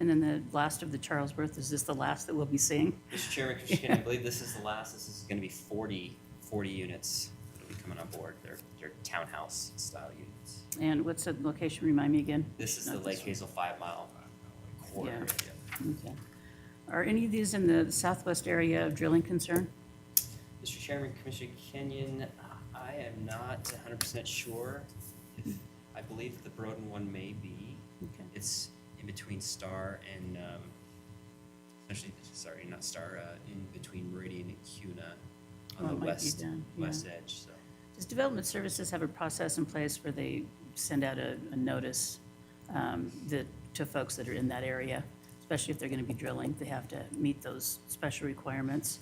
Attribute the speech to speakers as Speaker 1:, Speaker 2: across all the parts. Speaker 1: And then the last of the Charles Birth, is this the last that we'll be seeing?
Speaker 2: Mr. Chairman, Commissioner Kennedy, I believe this is the last, this is gonna be 40 40 units that'll be coming on board. They're, they're townhouse style units.
Speaker 1: And what's the location, remind me again?
Speaker 2: This is the
Speaker 1: Not
Speaker 2: Lake
Speaker 1: one. Uh,
Speaker 2: Hazel five mile corridor.
Speaker 1: Yeah.
Speaker 2: area.
Speaker 1: Okay. Are any of these in the southwest area of drilling concern?
Speaker 2: Mr. Chairman, Commissioner Kenyon, I am not hundred percent sure. if- I believe the Broden one may be.
Speaker 1: Okay.
Speaker 2: It's in between Star and, um, actually, sorry, not Star, uh, in between Meridian and Cuna on
Speaker 1: Well,
Speaker 2: the
Speaker 1: it might be
Speaker 2: west,
Speaker 1: down, yeah.
Speaker 2: west edge, so.
Speaker 1: Does Development Services have a process in place where they send out a, a notice um, that, to folks that are in that area? Especially if they're going to be drilling, they have to meet those special requirements.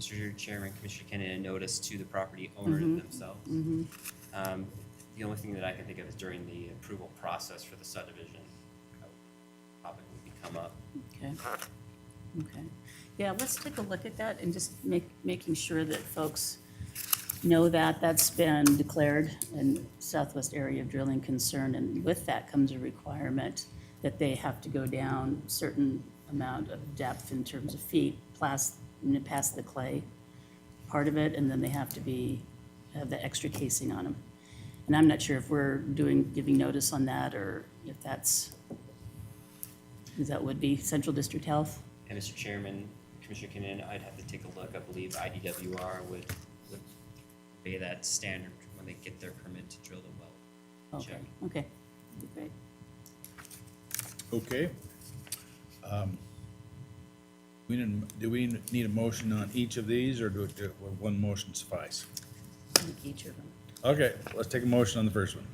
Speaker 2: Mr. Chairman, Commissioner Kennedy, a notice to the property owner themselves. Um, The only thing that I can think of is during the approval process for the subdivision, a topic would become up.
Speaker 1: Okay, okay. Yeah, let's take a look at that and just make, making sure that folks know that that's been declared in Southwest Area of Drilling Concern. And with that comes a requirement that they have to go down certain amount of depth in terms of feet, plas, n- past the clay part of it, and then they have to be, have the extra casing on them. And I'm not sure if we're doing, giving notice on that, or if that's because that would be Central District Health.
Speaker 2: And Mr. Chairman, Commissioner Kennedy, I'd have to take a look. I believe IDWR would, would obey that standard when they get their permit to drill the well.
Speaker 1: Okay,
Speaker 2: Check.
Speaker 1: okay, That'd be great.
Speaker 3: Okay. Um, We didn't, do we need a motion on each of these, or do, do- will one motion suffice?
Speaker 1: I think Each of them.
Speaker 3: Okay, let's take a motion on the first one.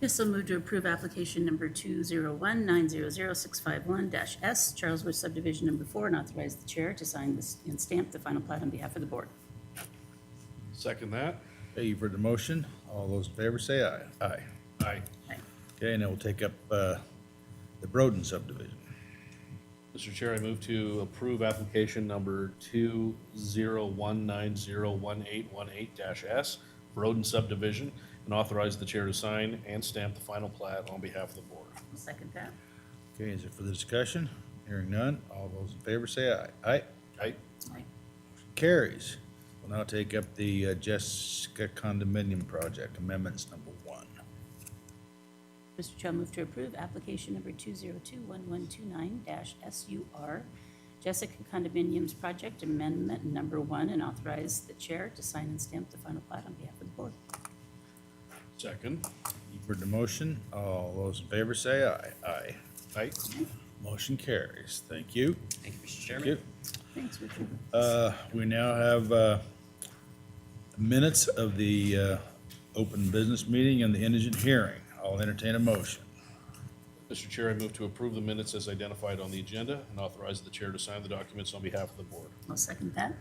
Speaker 1: This will move to approve application number 201900651-S, Charles Woods subdivision number four, and authorize the chair to sign this and stamp the final plat on behalf of the board.
Speaker 4: Second that.
Speaker 3: Okay, you've heard the motion. All those in favor say aye. Aye.
Speaker 4: Aye.
Speaker 1: Okay.
Speaker 3: Okay, and then we'll take up, uh, the Broden subdivision.
Speaker 4: Mr. Chair, I move to approve application number two zero one nine zero one eight one eight dash S, Broden subdivision, and authorize the chair to sign and stamp the final plat on behalf of the board.
Speaker 1: I'll second that.
Speaker 3: Okay, is it for the discussion? Hearing none. All those in favor say aye. Aye.
Speaker 4: Aye.
Speaker 1: Aye.
Speaker 3: Carries. We'll now take up the uh, Jessica condominium project amendments number one.
Speaker 1: Mr. Chair, I'll move to approve application number 2021129-SUR, Jessica Condominiums Project Amendment Number One, and authorize the chair to sign and stamp the final plat on behalf of the board.
Speaker 4: Second.
Speaker 3: You've heard the motion. All those in favor say aye. Aye.
Speaker 4: Aye.
Speaker 3: Motion carries. Thank you.
Speaker 2: Thank you, Mr.
Speaker 3: Thank
Speaker 2: Chairman.
Speaker 3: you.
Speaker 1: Thanks, Richard.
Speaker 3: Uh, we now have, uh, minutes of the, uh, open business meeting and the indigent hearing. I'll entertain a motion.
Speaker 4: Mr. Chair, I move to approve the minutes as identified on the agenda and authorize the chair to sign the documents on behalf of the board.
Speaker 1: I'll second that.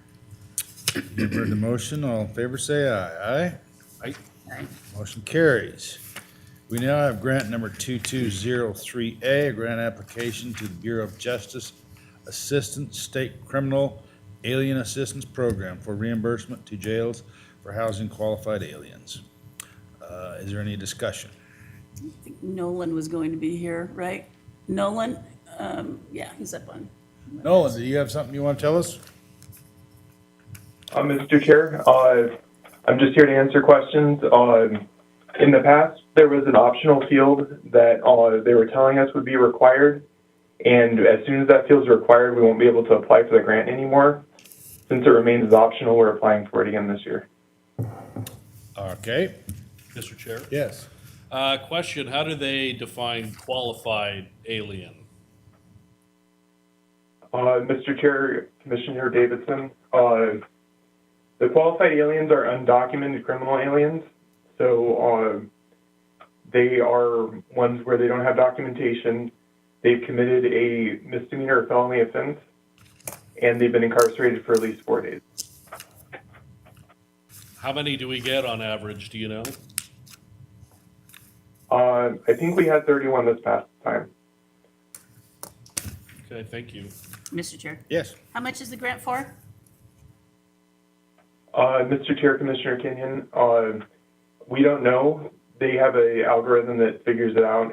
Speaker 3: You've heard the motion. All in favor say aye. Aye.
Speaker 4: Aye.
Speaker 1: Aye.
Speaker 3: Motion carries. We now have grant number 2203A, a grant application to the Bureau of Justice Assistance State Criminal Alien Assistance Program for reimbursement to jails for housing qualified aliens. Uh, Is there any discussion?
Speaker 1: I think Nolan was going to be here, right? Nolan, um, yeah, he's up on.
Speaker 3: Nolan, do you have something you want to tell us?
Speaker 5: Uh, Mr. Chair, uh, I'm just here to answer questions. Um, in the past, there was an optional field that uh, they were telling us would be required, and as soon as that field's required, we won't be able to apply for the grant anymore. Since it remains as optional, we're applying for it again this year.
Speaker 3: Okay,
Speaker 4: Mr. Chair?
Speaker 3: yes.
Speaker 4: Uh, question, how do they define qualified alien?
Speaker 5: Uh, Mr. Chair, Commissioner Davidson, uh, the qualified aliens are undocumented criminal aliens. So uh, they are ones where they don't have documentation. They've committed a misdemeanor or felony offense, and they've been incarcerated for at least four days.
Speaker 4: How many do we get on average, do you know?
Speaker 5: Uh, I think we had 31 this past time.
Speaker 4: Okay, thank you.
Speaker 1: Mr. Chair,
Speaker 3: Yes.
Speaker 1: how much is the grant for?
Speaker 5: Uh, Mr. Chair, Commissioner Kenyon, uh, we don't know. They have a algorithm that figures it out,